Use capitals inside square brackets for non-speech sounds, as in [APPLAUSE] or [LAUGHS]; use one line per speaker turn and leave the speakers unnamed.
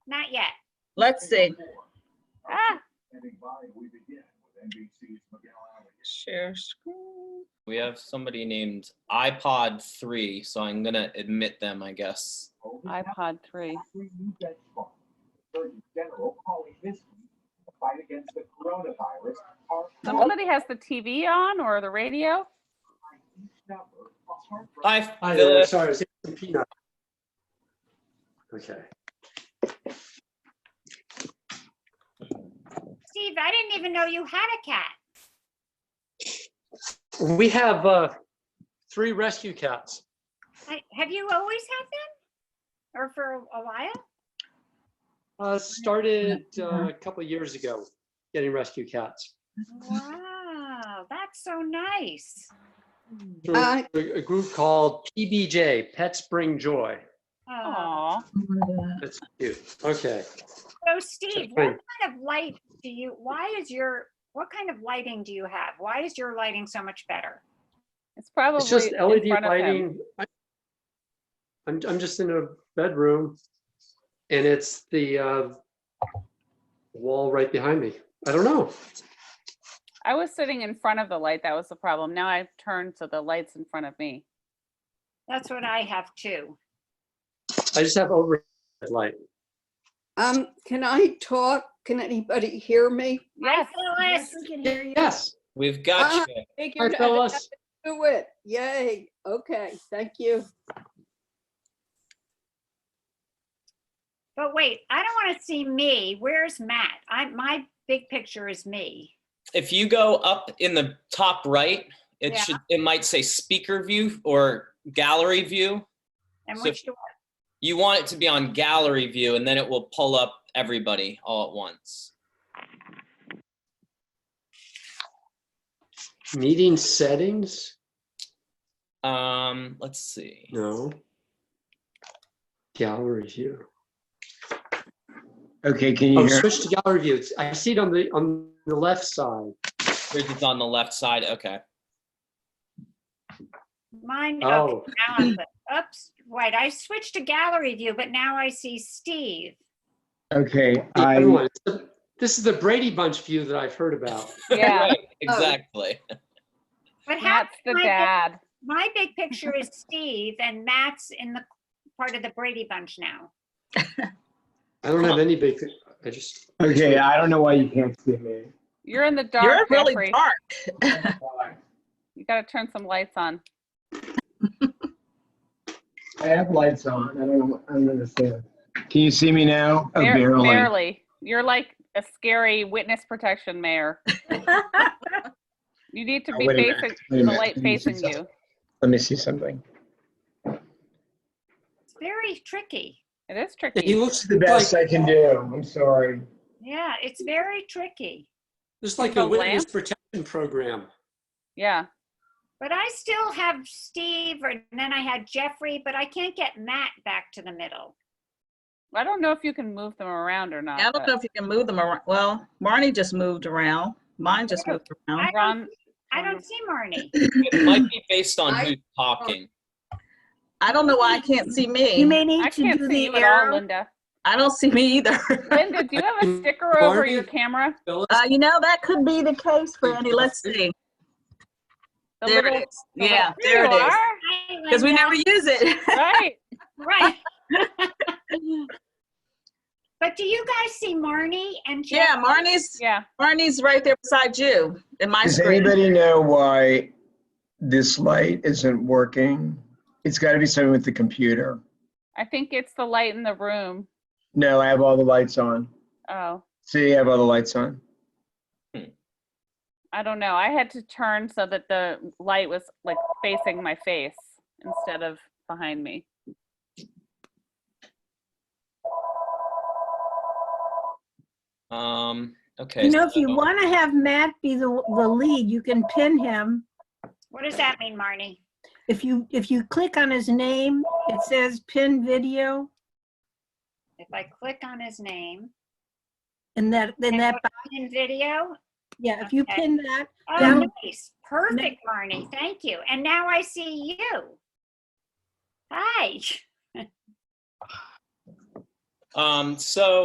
Not yet.
Let's see.
Ah,
Share screen.
We have somebody named iPod three, so I'm gonna admit them, I guess.
iPod 3. Somebody has the TV on or the radio?
Hi,
Hi there,
Philip.
sorry, I was eating some peanut. Okay,
Steve, I didn't even know you had a cat.
we have uh, three rescue cats.
I- Have you always had them? Or for a- a while?
Uh, Started uh, a couple of years ago, getting rescue cats.
Wow, that's so nice.
through
Uh,
A a group called PBJ, Pets Bring Joy.
Oh,
Aw,
That's cute. Okay.
so Steve, what
Wait.
kind of light do you, why is your, what kind of lighting do you have? Why is your lighting so much better?
it's probably
It's just
in
E
LED
front of him.
lighting. I- I'm, I'm just in a bedroom and it's the uh, wall right behind me. I don't know.
I was sitting in front of the light. That was the problem. Now I've turned to the lights in front of
[LAUGHS]
me.
That's what I have too.
I just have overhead light.
um, can I talk? Can anybody hear me?
Hi,
Yes.
Phyllis.
Yes,
We've
Ah.
got you.
I
Figured
tell
I'd
us.
do it. Yay. Okay, thank you.
But wait, I don't want to see me. Where's Matt? I, my big picture is me.
If you go up in the top right, it
Yeah.
should it might say speaker view or gallery view.
And
So-
which, do-
You want it to be on gallery view, and then it will pull up everybody all at once.
Meeting settings?
Um, let's see.
No. Gallery view.
Okay, can you
Oh,
hear?
switch to gallery view. It's- I see it on the, on the left side.
Yours is on the left side. Okay.
mine, okay,
Oh,
now
[CLEARS THROAT]
I'm, the- oops, wait, I switched to gallery view, but now I see Steve.
Okay,
the
I,
other one. It's the- This is the Brady Bunch view that I've heard about.
[LAUGHS]
Yeah, [LAUGHS]
Right,
Oh.
exactly.
But how,
that's the
my big-
dad.
my big picture is Steve and Matt's in the part of the Brady Bunch now.
I don't have any big, I just.
okay, I don't know why you can't see [LAUGHS] me.
You're in the
You're
dark,
really
Jeffrey.
dark.
You gotta turn some lights on.
I have lights on. I don't, I don't understand. Can you see me now? Oh,
Bar-
barely.
You're like a scary witness protection mayor.
[LAUGHS]
You need to
Oh,
be
wait a minute,
facing,
wait a
the
minute,
light
let me see
facing you.
Let me see something.
It's very tricky.
It is
He
tricky.
looks
The best I can do. I'm sorry.
Yeah, it's very tricky.
Just like
The
a witness
lamp?
protection program.
Yeah,
But I still have Steve or- and then I had Jeffrey, but I can't get Matt back to the middle.
I don't know if you can move them around or not.
I don't
but-
know if you can move them around. Well, Marnie just moved around. Mine just moved around.
I
Ron,
don't, I
Mm.
don't see Marnie.
It might be based on
I-
who's talking.
I don't know why I can't see
You
me.
may
I
need to
can't
do
see
the
you at all,
arrow.
Linda.
I don't see me either. [LAUGHS]
Linda, do you have a sticker over your
Barbie?
camera?
Phyllis,
Uh, you know, that could be the case, Franny.
[LAUGHS]
Let's see.
The
There
little- [LAUGHS]
it is.
the little-
Yeah,
There
there it
you
is.
are.
Hi,
Because we
Linda.
never use it. [LAUGHS]
Right.
Right. But do you guys see Marnie and Jeff?
Yeah, Marnie's,
Yeah.
Marnie's right there beside you in my
Does
screen.
anybody know why this light isn't working? It's got to be something with the computer.
I think it's the light in the room.
No, I have all the lights on.
Oh,
See, I have all the lights on.
I don't know. I had to turn so that the light was like facing my face instead of behind me.
Um, okay.
You know, if you
so-
want to have Matt be the, the lead, you can pin him.
What does that mean, Marnie?
If you, if you click on his name, it says pin video
If I click on his name
and that, then that,
in video,
yeah, if you
Okay.
pin that,
Oh,
Yeah.
nice. Perfect, Marnie. Thank you. And now I see you. Hi. [LAUGHS]
Um, so